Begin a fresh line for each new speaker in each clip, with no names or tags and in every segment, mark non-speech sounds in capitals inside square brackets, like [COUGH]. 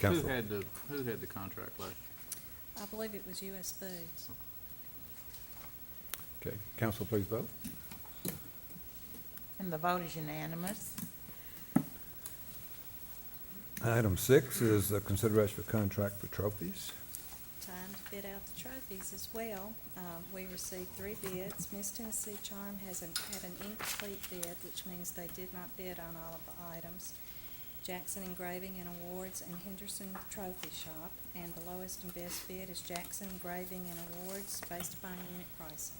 Who
Council.
had the, who had the contract last year?
I believe it was US Foods.
Okay, council, please vote.
And the vote is unanimous.
Item six is the consideration for contract for trophies.
Time to bid out the trophies as well. Uh, we received three bids. Miss Tennessee Charm has an, had an incomplete bid, which means they did not bid on all of the items. Jackson Engraving and Awards and Henderson Trophy Shop, and the lowest and best bid is Jackson Engraving and Awards based upon unit pricing.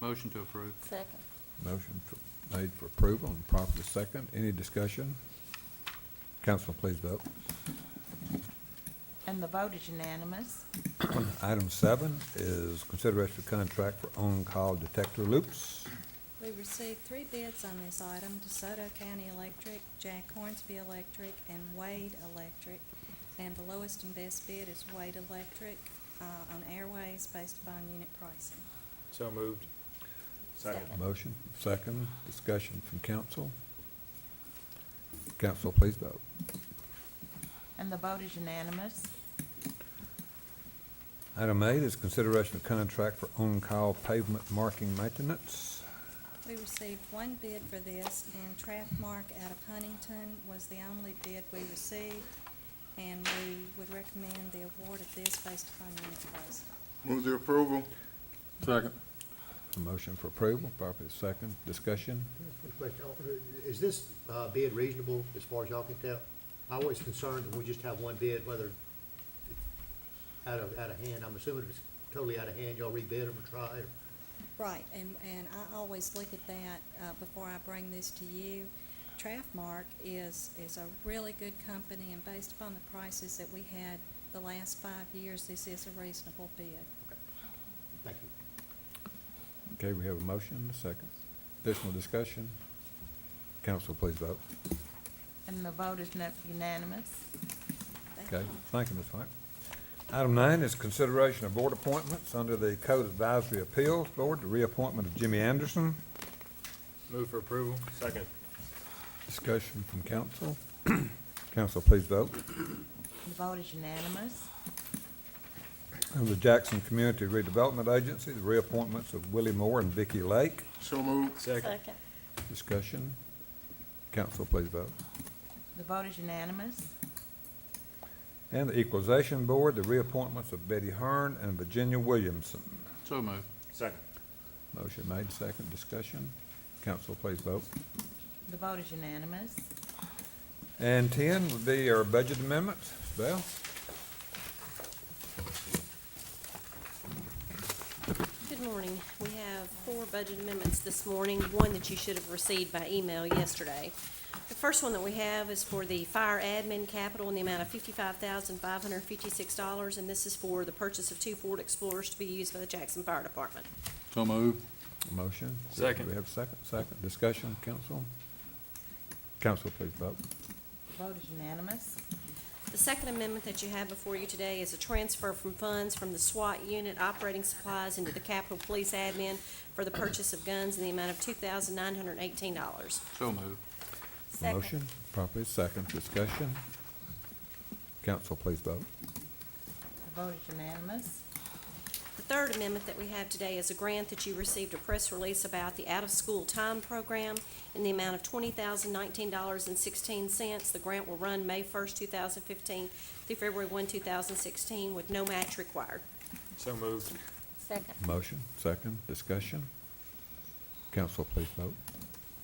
Motion to approve.
Second.
Motion for- made for approval and properly second. Any discussion? Council, please vote.
And the vote is unanimous.
Item seven is consideration for contract for on-call detector loops.
We received three bids on this item, DeSoto County Electric, Jack Hornsby Electric, and Wade Electric. And the lowest and best bid is Wade Electric, uh, on airways based upon unit pricing.
So moved.
Motion, second, discussion from council. Council, please vote.
And the vote is unanimous.
Item eight is consideration of contract for on-call pavement marking maintenance.
We received one bid for this, and Trapmark out of Huntington was the only bid we received. And we would recommend the award of this based upon unit pricing.
Move the approval.
Second.
A motion for approval, properly second, discussion.
Question, uh, is this uh, bid reasonable as far as y'all can tell? I was concerned that we just have one bid, whether it's out of, out of hand, I'm assuming it's totally out of hand, y'all rebid them or try, or
Right, and, and I always look at that, uh, before I bring this to you. Trafmark is, is a really good company, and based upon the prices that we had the last five years, this is a reasonable bid.
thank you.
Okay, we have a motion, second. Additional discussion. Council, please vote.
And the vote is not unanimous.
Thank
Okay,
you.
thank you, Ms. White. Item nine is consideration of board appointments under the Code Advisory Appeals Board, the reappointment of Jimmy Anderson.
Move for approval. Second.
Discussion from council. [CLEARS THROAT] Council, please vote.
The vote is unanimous.
Of the Jackson Community Redevelopment Agency, the reappointments of Willie Moore and Vicky Lake.
So move.
Second.
Discussion. Council, please vote.
The vote is unanimous.
And the Equalization Board, the reappointments of Betty Hearn and Virginia Williamson.
So moved.
Second.
Motion made, second discussion. Council, please vote.
The vote is unanimous.
And ten would be our budget amendments. Val?
Good morning. We have four budget amendments this morning, one that you should have received by email yesterday. The first one that we have is for the fire admin capital in the amount of fifty-five thousand, five hundred and fifty-six dollars, and this is for the purchase of two Ford Explorers to be used by the Jackson Fire Department.
So moved.
Motion?
Second.
Do we have a second? Second discussion, council? Council, please vote.
The vote is unanimous.
The second amendment that you have before you today is a transfer from funds from the SWAT unit operating supplies into the Capitol Police admin for the purchase of guns in the amount of two thousand, nine hundred and eighteen dollars.
So moved.
Second.
Motion, properly second discussion. Council, please vote.
The vote is unanimous.
The third amendment that we have today is a grant that you received a press release about the out-of-school time program in the amount of twenty thousand nineteen dollars and sixteen cents. The grant will run May first, two thousand fifteen through February one, two thousand sixteen, with no match required.
So moved.
Second.
Motion, second discussion. Council, please vote.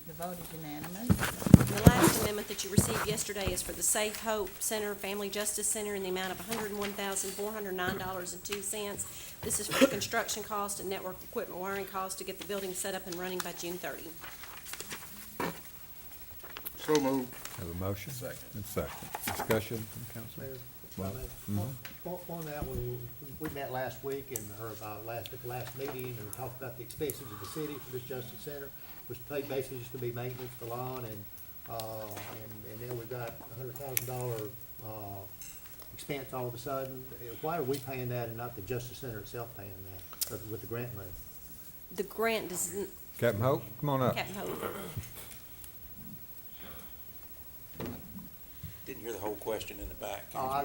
The vote is unanimous.
And The last amendment that you received yesterday is for the Safe Hope Center, Family Justice Center, in the amount of hundred and one thousand four hundred nine dollars and two cents. This is for the construction cost and network equipment wiring cost to get the building set up and running by June thirty.
So move.
Have a motion? Second. And second. Discussion from council?
Mayor, if I
Well, mm-hmm.
may, on- On on that, we, we met last week and, or about last, at the last meeting, and we talked about the expenses of the city for this Justice Center, which paid basically just to be maintenance, the lawn, and, uh, and, and then we got a hundred thousand dollar, uh, expense all of a sudden. Uh, Why are we paying that and not the Justice Center itself paying that, uh, with the grant money?
The grant does, n-
Captain Hope, come on up.
Captain Hope. didn't hear the whole question in the back. Can you
Oh, I-